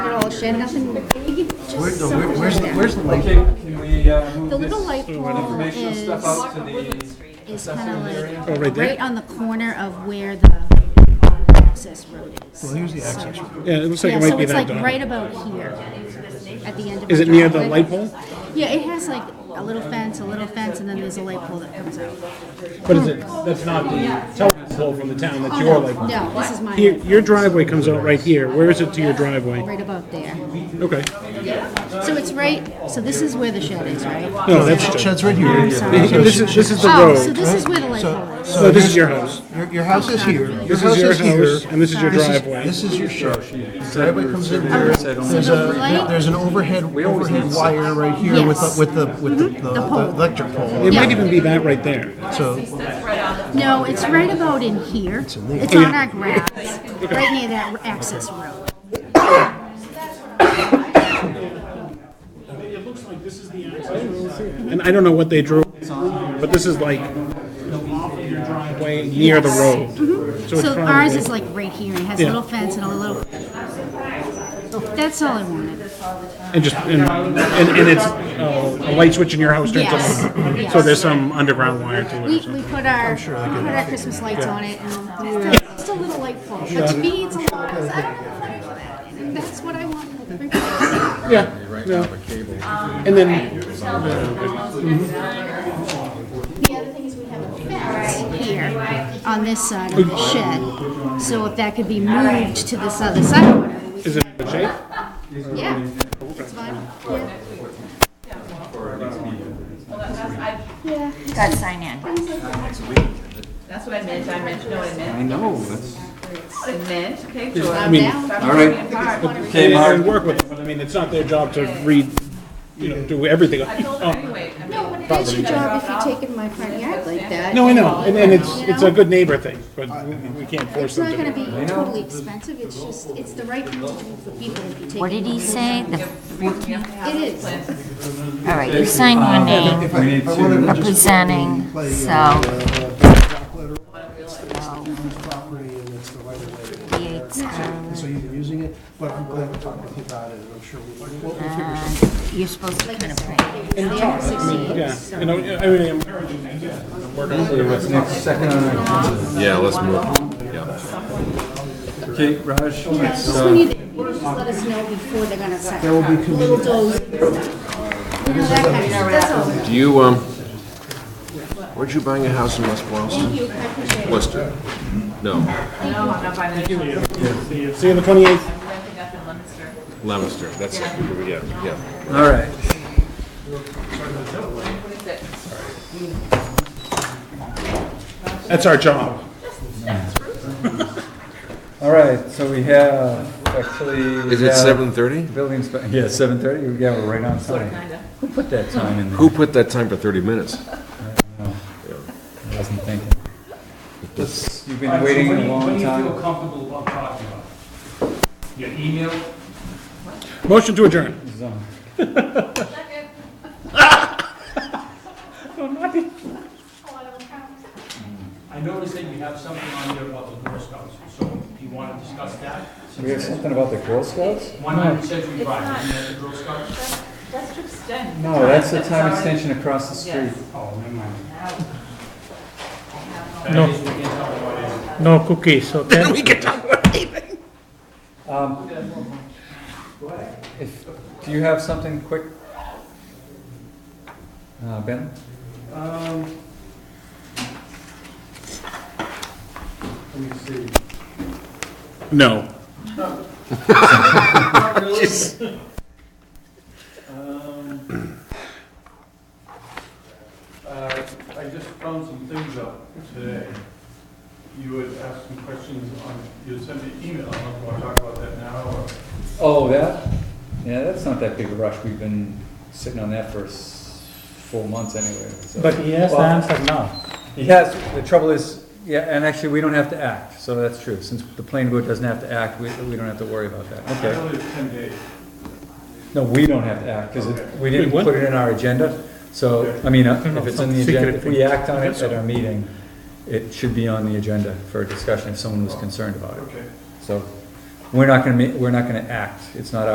Shanahan Where's just the, where- where's, the- where's the Okay, light? can we uh, move The little this light pole informational is, stuff out to the, is kind Oh, of right like there? right on the corner of where the access road is. Well, here's the access. road. Yeah, it looks like Yeah, it might so be it's that like dog. right about here, at the end of. Is my it near the driveway. light pole? Yeah, it has like a little fence, a little fence, and then there's a light pole that comes out. But is it, that's not the telephone pole from the town, that's your light pole. No, this is my Your, light pole, your driveway comes out right here, where is it to your driveway? right above there. Okay, So it's right, so this is where the shed is, right? no, that's Sh- just, Shed's right here. this is, this is the Oh, so road. this is where the light pole is. So this is your house, Your, your house is here. Your this is your here. house, and this is your This is- driveway. This is your shed. Driveway comes in here. There's So the a, light- there's an overhead, overhead wire right here with, the- with the, with the, Mm-hmm. the The pole. the electric pole. It might Yeah. even be that right there. So, No, it's right about in here. It's Oh, on our grass, right near that access road. And I don't know what they drew, but this is like way near the road. So Mm-hmm. it's So ours probably, is like right here, and it has a Yeah. little fence and a little. Oh, That's all I wanted. and just, and, and and it's, uh, a light switch in your house turns Yes, on. yes. So there's some underground wire to it We, or something. we put our, we put our Christmas lights on it, Oh, and it's just a little light bulb, but to me, it's a lot, I don't know what I want that, and that's what I want. for everybody else. Yeah, yeah. And then, The other thing is we have a fence here on this side of the shed, so if that could be moved to this other side, whatever we is it the shape? Yeah, it's fine. Yeah. Yeah. Got to sign in. That's what I meant, I meant, no, I meant, I know, that's. I meant, okay, George. I mean- Down. All right. Okay, And Mark, work with it, but I mean, it's not their job to read, you know, do everything. Oh. I told her anyway. I No, mean, but it is your job if you're taking my front yard like that. No, I know, and, and it's, You it's know? a good neighbor thing, but we can't It's force not them gonna to. be totally expensive, it's just, it's the right thing to do for people if you take. What did he say? The fourteenth? It is. All right, you sign your name, we need to, representing, so property and it's the right of way. Yates, uh, So you've been using it, but I'm glad to talk with you about it and I'm sure we'll, we'll we'll figure something. you're supposed to print a print. They are sixty-eight. Yeah, you know, I mean, I'm encouraging them to work on it. what's next, second on our agenda? Yeah, let's move. Yeah. Okay, Raj, Yeah, it's, Just when uh, you, you just let us know before they're gonna set up, little doors. You know, that kind of, that's all. Do you, um, where'd you buying a house in West Boylston? Thank you, I appreciate it. Worcester? No, No, I'm not buying that. See you on the twenty-eighth. I'm renting up in Leominster. Leominster, that's it, yeah, yeah. all right. What is it? That's our job. All right, so we have, actually. we Is it have seven thirty? Building, spe- yeah, seven thirty, yeah, we're right on time. Who put that time in there? Who put that time for thirty minutes? I wasn't thinking. This- You've been waiting a long time. comfortable about talking about? Your email? Motion to adjourn. I noticed that you have something on there about the Girl Scouts, so do you want to discuss that? We have something about the Girl Scouts? One hundred Century Drive, isn't that the Girl Scouts? That's to extend. No, that's the time already- extension across the street. Yes. Oh, never mind. No. That is, we can talk about it. No cookies, okay? Um, If, do you have something quick? Uh, Ben? Um, Let me see. No. Not really. Um, uh, I just found some things out today. You had asked some questions on, you had sent me an email, I don't know if I want to talk about that now or. Oh, that? Yeah, that's not that big a rush. We've been sitting on that for s- four months anyway, so. But he has the Well, answer now. He has, the trouble is, yeah, and actually, we don't have to act, so that's true. Since the planning board doesn't have to act, we, we don't have to worry about that. I Okay. know it's ten days. No, we don't have to act, because we didn't Wait, what? put it in our agenda. So, I mean, uh, No, no, if it's some on the secret agenda, if we thing. act on it at our meeting, it should be on the agenda for a discussion if someone was concerned about it. Okay. So, we're not gonna, ma- we're not gonna act. It's not